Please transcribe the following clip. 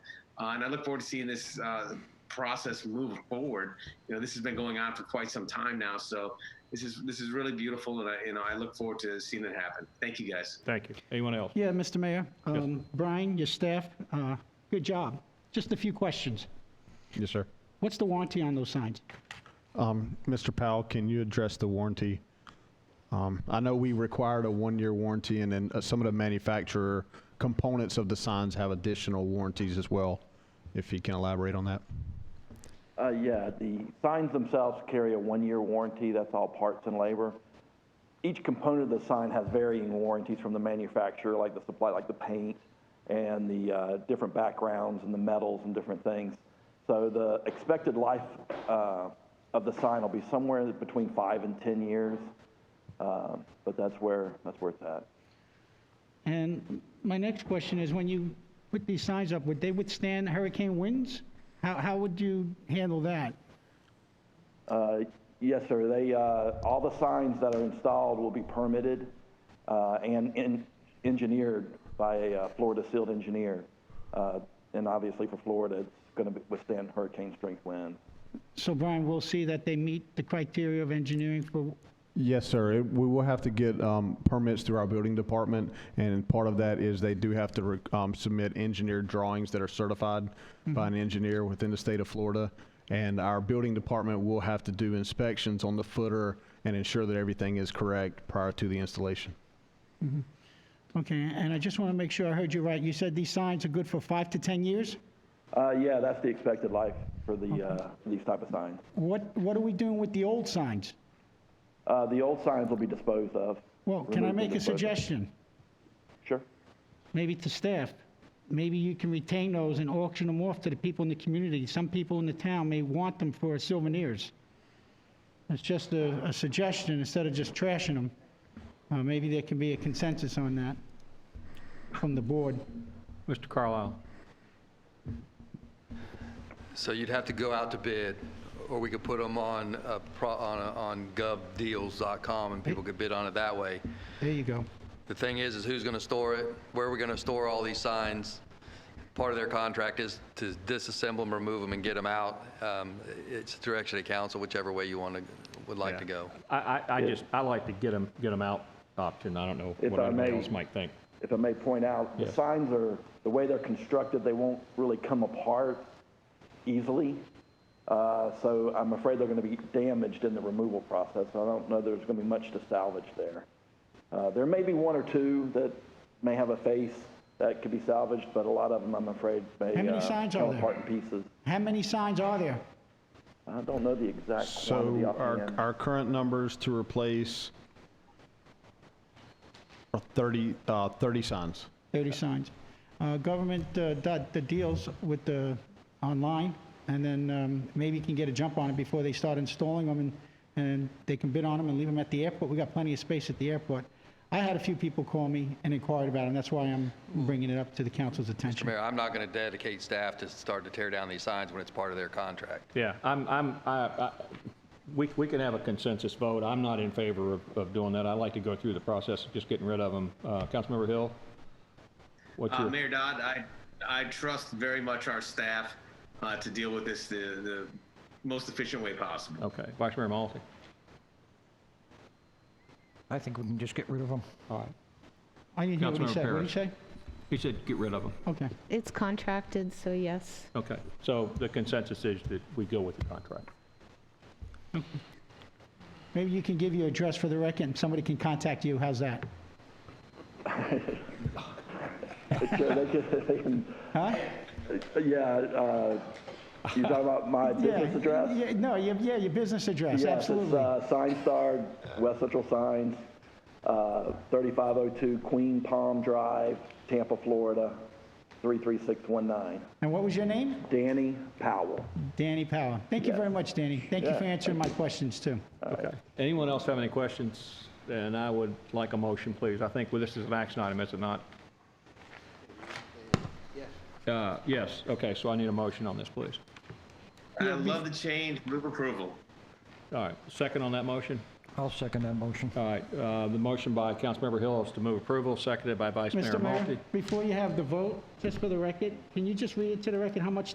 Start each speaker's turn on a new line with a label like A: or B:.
A: Uh, and I look forward to seeing this uh, process move forward. You know, this has been going on for quite some time now, so this is this is really beautiful, and I you know I look forward to seeing it happen. Thank you guys.
B: Thank you. Anyone else?
C: Yeah, Mr. Mayor, um, Brian, your staff, uh, good job. Just a few questions.
B: Yes, sir.
C: What's the warranty on those signs?
D: Um, Mr. Powell, can you address the warranty? Um, I know we required a one-year warranty, and then uh, some of the manufacturer components of the signs have additional warranties as well, if you can elaborate on that.
E: Uh, yeah, the signs themselves carry a one-year warranty. That's all parts and labor. Each component of the sign has varying warranties from the manufacturer, like the supply, like the paint and the uh, different backgrounds and the metals and different things. So the expected life uh, of the sign will be somewhere between five and 10 years. Um, but that's where, that's where it's at.
C: And my next question is, when you put these signs up, would they withstand hurricane winds? How, how would you handle that?
E: Uh, Yes, sir. They, uh, all the signs that are installed will be permitted uh, and en- engineered by a uh, Florida sealed engineer. Uh, And obviously for Florida, it's going to withstand hurricane strength wind.
C: So Brian, we'll see that they meet the criteria of engineering for,
D: Yes, sir. It- We will have to get um, permits through our building department, and part of that is they do have to re- um, submit engineered drawings that are certified by an engineer within the state of Florida. And our building department will have to do inspections on the footer and ensure that everything is correct prior to the installation.
C: okay, and I just want to make sure I heard you right. You said these signs are good for five to 10 years?
E: Uh, Yeah, that's the expected life for the, uh, these type of signs.
C: What, what are we doing with the old signs?
E: Uh, The old signs will be disposed of.
C: Well, can I
E: Removed and
C: make a
E: disposed of.
C: suggestion?
E: Sure.
C: maybe to staff, maybe you can retain those and auction them off to the people in the community. Some people in the town may want them for souvenirs. It's just a, a suggestion, instead of just trashing them. Uh, maybe there can be a consensus on that from the board.
B: Mr. Carlisle.
F: So you'd have to go out to bid, or we could put them on, uh, pro- on a- on govdeals.com, and people could bid on it that way.
C: There you go.
F: The thing is, is who's going to store it? Where are we going to store all these signs? Part of their contract is to disassemble them, remove them, and get them out. Um, It's direction of council, whichever way you want to, would like to go.
B: I, I, I just, I like to get them, get them out option. I don't know
E: If
B: what
E: I
B: anyone
E: may-
B: else might think.
E: if I may point out, the
B: Yes.
E: signs are, the way they're constructed, they won't really come apart easily. Uh, So I'm afraid they're going to be damaged in the removal process. I don't know there's going to be much to salvage there. Uh, There may be one or two that may have a face that could be salvaged, but a lot of them, I'm afraid, may
C: How many
E: uh,
C: signs are
E: come
C: there?
E: apart in pieces.
C: How many signs are there?
E: I don't know the exact quantity
D: So our,
E: offhand.
D: our current numbers to replace are 30, uh, 30 signs.
C: 30 signs. Uh, Government, uh, dot the deals with the, online, and then um, maybe you can get a jump on it before they start installing them, and, and they can bid on them and leave them at the airport. We got plenty of space at the airport. I had a few people call me and inquired about them, that's why I'm bringing it up to the council's attention.
F: Mayor, I'm not going to dedicate staff to start to tear down these signs when it's part of their contract.
B: Yeah, I'm, I'm, I, I, we, we can have a consensus vote. I'm not in favor of, of doing that. I like to go through the process of just getting rid of them. Uh, Councilmember Hill? What's
A: Uh,
F: Um,
B: your,
A: Mayor Dodd, I, I trust very much our staff uh, to deal with this the, the most efficient way possible.
B: okay, Vice Mayor Malty?
G: I think we can just get rid of them.
B: All right.
C: I didn't hear what he
B: Councilmember
C: said, what did he
B: Parrish.
C: say?
B: He said get rid of them.
C: Okay,
H: It's contracted, so yes.
B: Okay, so the consensus is that we go with the contract.
C: maybe you can give your address for the record, and somebody can contact you, how's that?
E: Sure, they can- they can-
C: Huh?
E: Yeah, uh, you talking about my business
C: Yeah,
E: address?
C: yeah, No, your- yeah, your business address,
E: Yes, it's
C: absolutely.
E: uh, Sign Star, West Central Signs, uh, 3502 Queen Palm Drive, Tampa, Florida, 33619.
C: And what was your name?
E: Danny Powell.
C: Danny Power. Thank you
E: Yeah.
C: very much, Danny. Thank you
E: Yeah,
C: for answering my questions, too.
B: Okay. Anyone else have any questions? Then I would like a motion, please. I think, well, this is an action item, is it not? Yes. Uh, Yes, okay, so I need a motion on this, please.
A: I love the change. Move approval.
B: All right, second on that motion?
G: I'll second that motion.
B: All right, uh, the motion by Councilmember Hill is to move approval, seconded by Vice Mayor
C: Mr. Mayor,
B: Malte.
C: before you have the vote, just for the record, can you just read into the record how much